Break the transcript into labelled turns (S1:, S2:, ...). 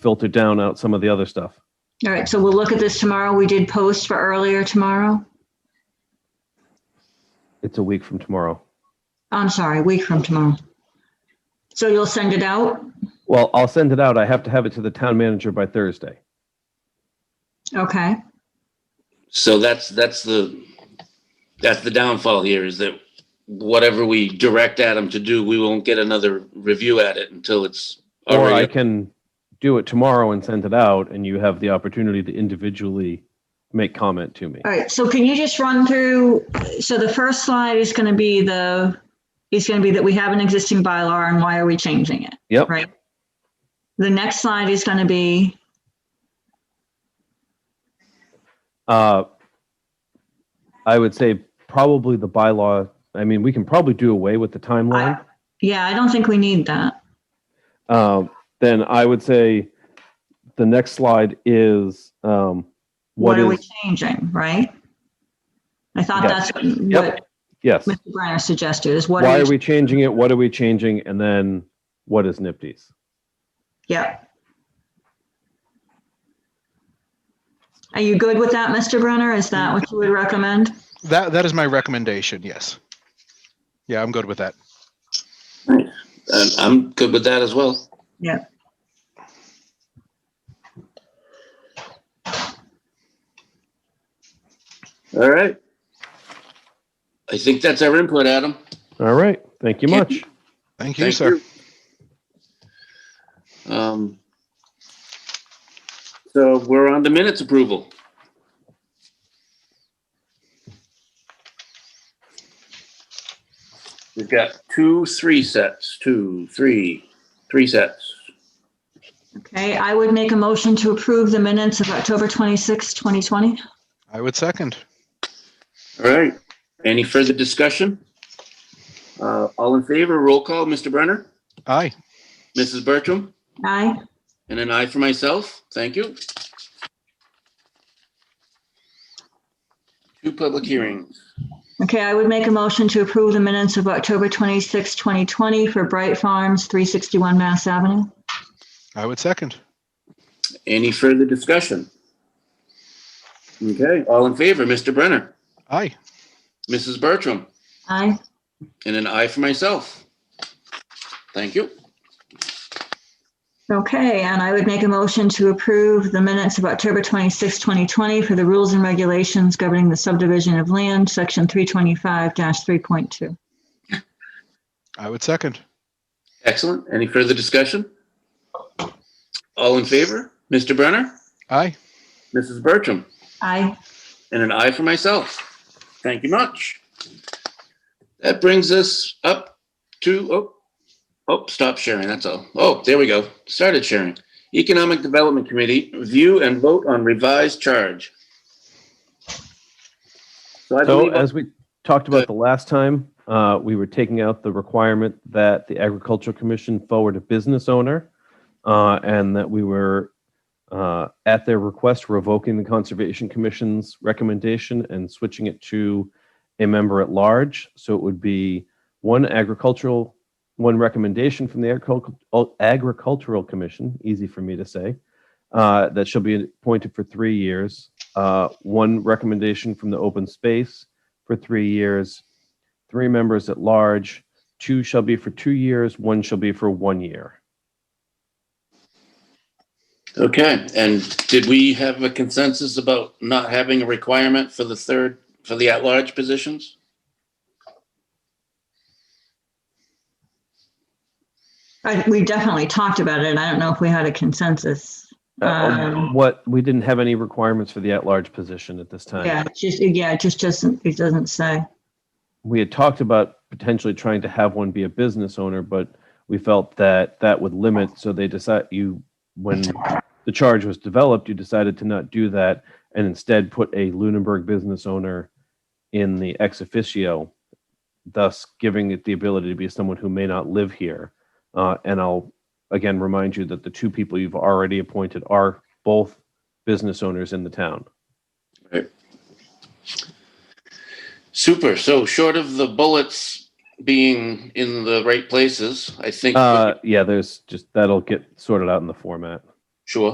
S1: filter down out some of the other stuff.
S2: All right, so we'll look at this tomorrow. We did post for earlier tomorrow.
S1: It's a week from tomorrow.
S2: I'm sorry, a week from tomorrow. So you'll send it out?
S1: Well, I'll send it out. I have to have it to the town manager by Thursday.
S2: Okay,
S3: So that's, that's the, that's the downfall here is that whatever we direct Adam to do, we won't get another review at it until it's
S1: Or I
S3: already.
S1: can do it tomorrow and send it out and you have the opportunity to individually make comment to me.
S2: all right, so can you just run through, so the first slide is going to be the, is going to be that we have an existing bylaw and why are we changing it?
S1: Yep.
S2: Right. The next slide is going to be,
S1: Uh, I would say probably the bylaw, I mean, we can probably do away with the timeline.
S2: yeah, I don't think we need that. Uh-huh.
S1: Um, then I would say the next slide is, um,
S2: What
S1: what
S2: are we
S1: is,
S2: changing, right? I thought
S1: Yes.
S2: that's what
S1: yes.
S2: Mr. Brenner suggested is what
S1: Why
S2: are
S1: are
S2: we,
S1: we changing it? What are we changing? And then what is NIPD's?
S2: yeah. Are you good with that, Mr. Brenner? Is that what you would recommend?
S4: That that is my recommendation. Yes. Yeah, I'm good with that.
S3: And I'm good with that as well. All right. I think that's our input, Adam.
S1: All right. Thank you much.
S4: Thank you,
S3: Thank
S4: sir.
S3: you. Um, So we're on the minutes approval. We've got two, three sets, two, three, three sets.
S2: Okay, I would make a motion to approve the minutes of October 26, 2020.
S4: I would second.
S3: All right. Any further discussion? Uh, All in favor, roll call, Mr. Brenner,
S4: Aye.
S3: Mrs. Bertram,
S2: Aye.
S3: and an aye for myself. Thank you. Two public hearings.
S2: Okay, I would make a motion to approve the minutes of October 26, 2020 for Bright Farms, 361 Mass Avenue.
S4: I would second.
S3: Any further discussion? Okay, all in favor, Mr. Brenner,
S4: Aye.
S3: Mrs. Bertram,
S2: Aye.
S3: and an aye for myself. Thank you.
S2: Okay, and I would make a motion to approve the minutes of October 26, 2020 for the rules and regulations governing the subdivision of land, section 325-3.2.
S4: I would second.
S3: Excellent. Any further discussion? All in favor, Mr. Brenner,
S4: Aye.
S3: Mrs. Bertram,
S2: Aye.
S3: and an aye for myself. Thank you much. That brings us up to, oh, oh, stop sharing, that's all. Oh, there we go. Started sharing. Economic Development Committee, view and vote on revised charge. So I
S1: So
S3: believe,
S1: as we talked
S3: Go
S1: about the last time, uh, we were taking out the requirement that the agricultural commission forward a business owner. Uh, and that we were, uh, at their request, revoking the conservation commission's recommendation and switching it to a member at large. So it would be one agricultural, one recommendation from the agricultural, agricultural commission, easy for me to say, uh, that shall be appointed for three years. Uh, one recommendation from the open space for three years, three members at large, two shall be for two years, one shall be for one year.
S3: okay, and did we have a consensus about not having a requirement for the third, for the at-large positions?
S2: I- We definitely talked about it. I don't know if we had a consensus.
S1: Uh,
S2: Um,
S1: What, we didn't have any requirements for the at-large position at this
S2: Yeah,
S1: time.
S2: it's just, yeah, it just doesn't, it doesn't say.
S1: We had talked about potentially trying to have one be a business owner, but we felt that that would limit, so they decide, you, when the charge was developed, you decided to not do that and instead put a Lunenburg business owner in the ex officio, thus giving it the ability to be someone who may not live here. Uh, and I'll again remind you that the two people you've already appointed are both business owners in the town.
S3: Super, so short of the bullets being in the right places, I think.
S1: Uh, yeah, there's just that'll get sorted out in the format.